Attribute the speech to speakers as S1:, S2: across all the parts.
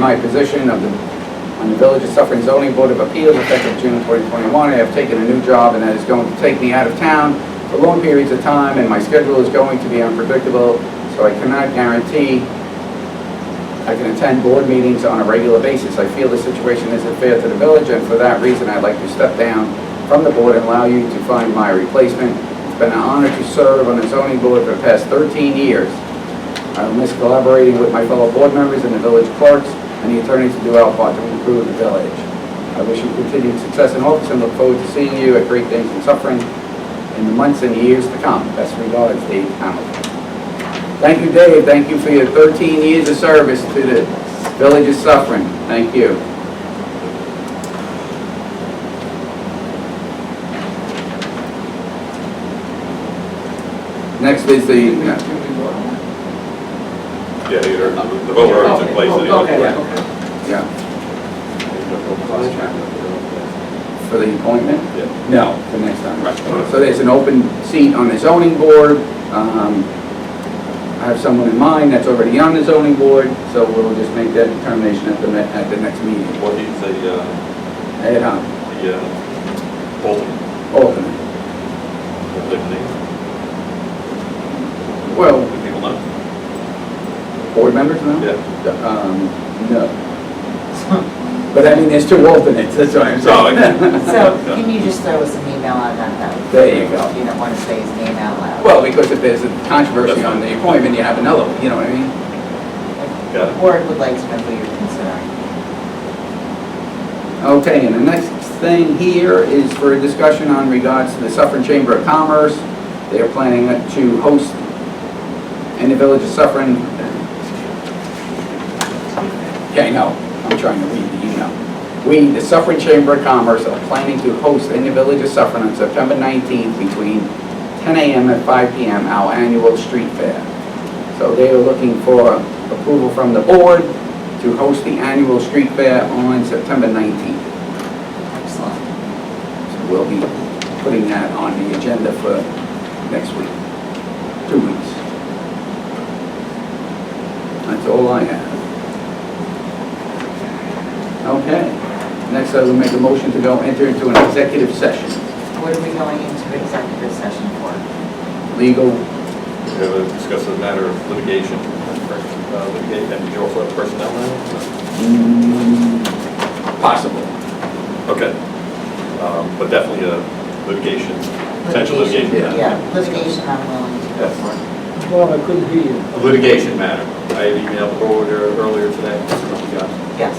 S1: My position of the, on the Village of Suffering Zoning Board of Appeals effective June 2021. I have taken a new job and that is going to take me out of town for long periods of time and my schedule is going to be unpredictable, so I cannot guarantee I can attend board meetings on a regular basis. I feel the situation isn't fair to the village, and for that reason, I'd like to step down from the board and allow you to find my replacement. It's been an honor to serve on the zoning board for the past 13 years. I will miss collaborating with my fellow board members and the village clerks and the attorneys to do our part to improve the village. I wish you continued success in office and look forward to seeing you at Great Things and Suffering in the months and years to come. Best regards, Dave Hamilton. Thank you, Dave. Thank you for your 13 years of service to the village of Suffering. Thank you. Next is the,
S2: Yeah, either, the vote already took place anyway.
S3: Okay.
S1: yeah, for the appointment?
S2: Yeah.
S1: No, for next time. So there's an open seat on the zoning board. Um, I have someone in mind that's already on the zoning board, so we'll just make that determination at the, ne- at the next meeting.
S2: What he's the, uh,
S1: Ed Hunt,
S2: the, uh, alternate,
S1: alternate.
S2: alternate,
S1: Well,
S2: do people know?
S1: Board members now?
S2: Yeah.
S1: Um, no. But I mean, there's two alternates, that's what I'm
S2: So,
S1: saying.
S2: like,
S3: So can you just throw us an email on that though?
S1: There you go.
S3: If you don't want to say his name out loud.
S1: Well, because if there's a controversy on the appointment, you have another, one, you know what I mean?
S2: got it.
S3: Board would like to know who you're considering.
S1: Okay, and the next thing here is for a discussion on regards to the Suffern Chamber of Commerce. They are planning to host in the Village of Suffern. Yeah, I know, I'm trying to read the email. We, the Suffern Chamber of Commerce, are planning to host in the Village of Suffern on September 19th between 10 a.m. and 5 p.m. our annual street fair. So they are looking for approval from the board to host the annual street fair on September 19th.
S3: Excellent.
S1: So we'll be putting that on the agenda for next week, two weeks. That's all I have. Okay, next I will make a motion to go enter into an executive session,
S3: What are we going into executive session for?
S1: legal,
S2: We have a discuss the matter of litigation, uh, litigate, and you also have personnel
S1: mm,
S2: now?
S1: possible.
S2: Okay, um, but definitely a litigation, potential litigation matter.
S3: Yeah, litigation I'm willing to go for.
S4: Well, Oh, I couldn't hear you.
S2: A litigation matter. I had emailed the board earlier today, this is what we got.
S3: Yes.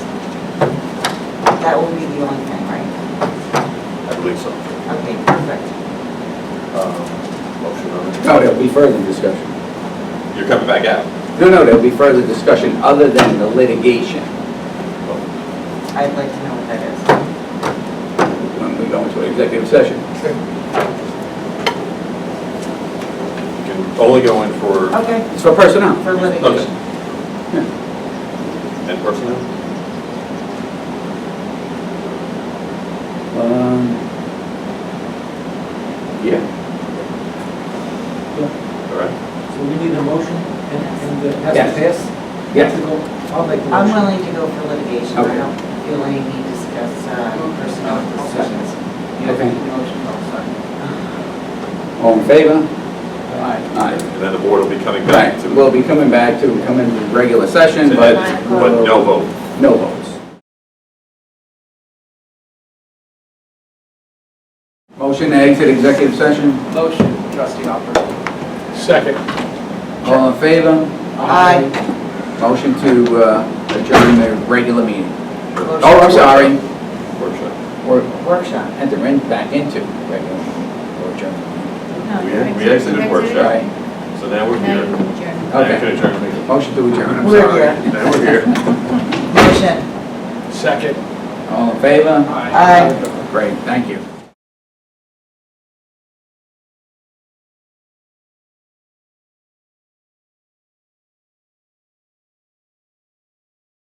S3: That will be the only thing, right?
S2: I believe so.
S3: Okay, perfect.
S2: Um, Motion on it.
S1: No, there'll be further discussion.
S2: You're coming back out.
S1: No, no, there'll be further discussion other than the litigation
S3: I'd like to know what that
S1: when we go into executive session.
S2: You can only go in for,
S3: is. Okay,
S1: It's for personnel.
S3: for litigation.
S2: and personnel?
S1: Um, Yeah,
S2: All right.
S4: So we need a motion and, and it has
S1: Yes.
S4: to pass?
S1: yes.
S4: To go- I'll make the
S3: I'm
S4: motion.
S3: willing to go for litigation. I
S1: Okay.
S3: don't feel any need to discuss uh, personnel decisions. You have
S1: Okay.
S3: any motion, oh, sorry.
S1: All in favor?
S4: Aye.
S1: Aye.
S2: And then the board will be coming back
S1: Right,
S2: to,
S1: we'll be coming back to, come in regular session,
S2: to
S1: but.
S2: that, but no vote.
S1: No votes. Motion to exit executive session,
S4: Motion, trustee Hopper. Second.
S1: all in favor?
S3: Aye.
S1: Motion to uh, adjourn the regular meeting.
S3: Motion.
S1: Oh, I'm sorry,
S2: Workshop.
S1: we're,
S3: Workshop.
S1: enter in back into regular meeting, or adjourn.
S2: We we exited workshop,
S1: Right,
S2: so now we're
S5: Now
S2: here.
S5: you can adjourn.
S2: Now you
S1: Okay.
S2: can adjourn.
S1: motion to adjourn, I'm
S3: We're
S1: sorry.
S3: here.
S2: Now we're here.
S3: Motion.
S4: Second.
S1: All in favor?
S4: Aye.
S3: Aye.
S1: Great, thank you.